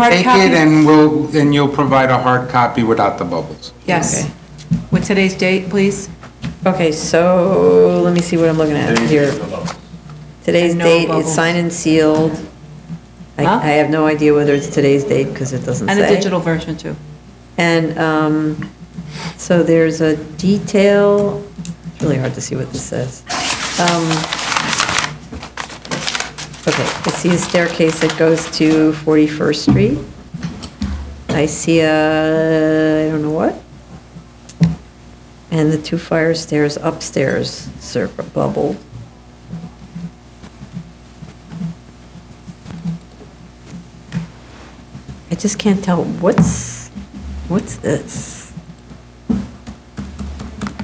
Hard Take copy? it and we'll, and you'll provide a hard copy without the bubbles. Yes. With today's date, please? Okay, so let me see what I'm looking at here. Today's And no date, it's bubbles. signed and sealed. I, Huh? I have no idea whether it's today's date because it doesn't say. And a digital version, too. And, um, so there's a detail, it's really hard to see what this says. Um, Okay, I see a staircase that goes to 41st Street. I see a, I don't know what. And the two fire stairs upstairs, circle bubble. I just can't tell, what's, what's this?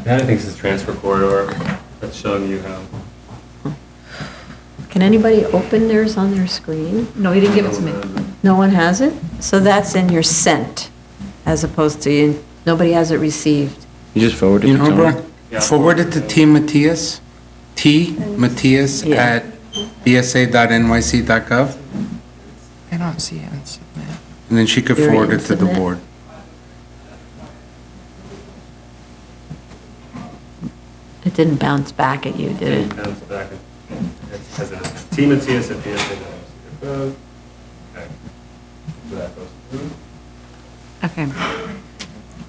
That I think is the transfer corridor, that's showing you how. Can anybody open theirs on their screen? No, you didn't give it to me. No one has it? So that's in your sent, as opposed to, in- nobody has it received. You just forward it You to know, Tony. Brad, forward it to T. Matias, T. Matias Yeah. at dsa.nyc.gov, I don't see it. It's- yeah. and then she could You're forward it to into the that? board. It didn't bounce back at you, did it? Bounce back and, it's- as it is. Team and TS at BSA. Okay. So that goes through. Okay.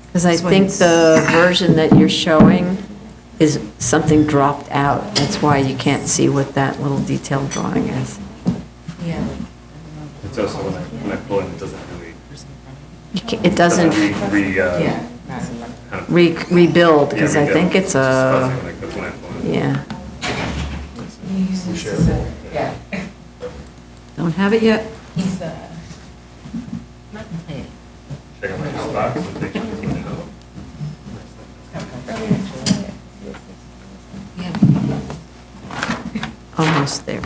Because I This one think is- the version that you're showing is something dropped out. That's why you can't see what that little detailed drawing is. It's also when I, when I pull in, it doesn't really. You ca- It doesn't Re, re, uh. kind of- re- rebuild, because Yeah, I rebuild. think it's It's fuzzy a, when I- that's when I pull in. yeah. Don't have it yet? Check out my inbox and make sure it's in there. Almost there.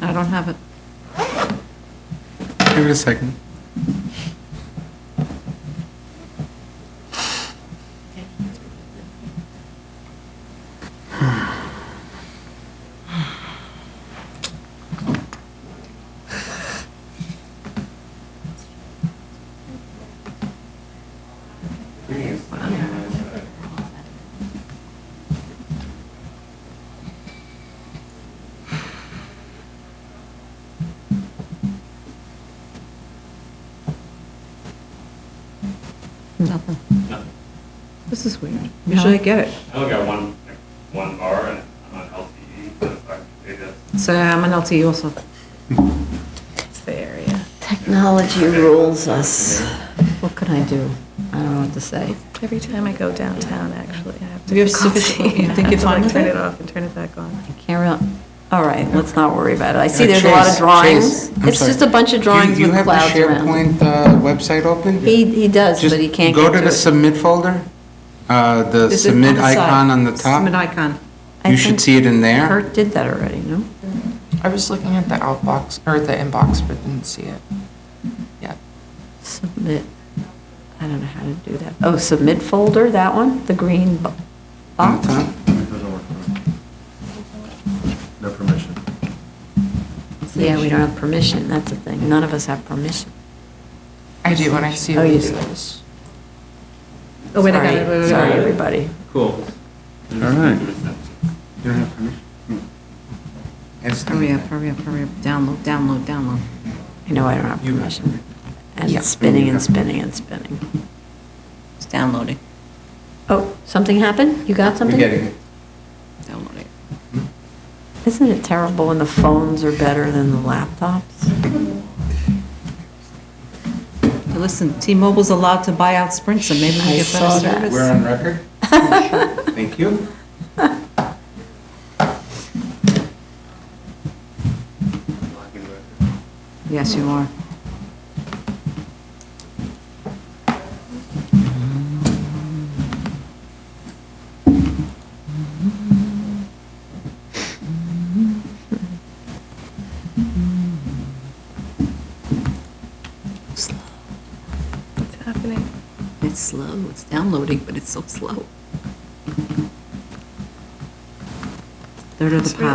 I don't have it. Give it a second. Nothing. No. This is weird. Usually I get it. I only got one, like, one bar and I'm on E. LTE, so if I- maybe that's. So I'm an LT also. It's the area. Technology rules us. What can I do? I don't know what to say. Every time I go downtown, actually, I have to. You're sufficient- you think you're fine with Turn it? it off and turn it back on. Camera, all right, let's not worry about it. I see Uh, there's a lot of Chase, drawings. Chase, I'm It's sorry. just a bunch of Do drawings you with have the clouds around. SharePoint uh, website open? He, he does, Just but he can't Go get to to the it. submit folder, uh, the Is it on submit the side? icon on the Submit top. icon. I You should think see it in there. Kurt did that already, no? I was looking at the outbox, or the inbox, but didn't see it. Yeah. Submit, I don't know how to do that. Oh, submit folder, that one, the green bo- on the box? top. No permission. Yeah, we don't have permission, that's the thing. None of us have permission. I do when I see Oh, you these. do. Oh, wait, I got Sorry, it. Wait, wait, Sorry, wait, wait. everybody. Cool. All right. You don't have permission? It's- Hurry up, hurry up, hurry up. Download, download, download. I know I don't have You have permission. And Yeah. it's spinning and Yeah. spinning and spinning. It's downloading, Oh, something happened? You got We're something? getting it. downloading. Isn't it terrible when the phones are better than the laptops? Hey, Listen, T-Mobile's allowed to buy out Sprint, so maybe I we get saw better service. that. We're on record? Thank you. Yes, you are. What's happening? It's slow, it's downloading, but it's so slow. They're to the It's really- pod.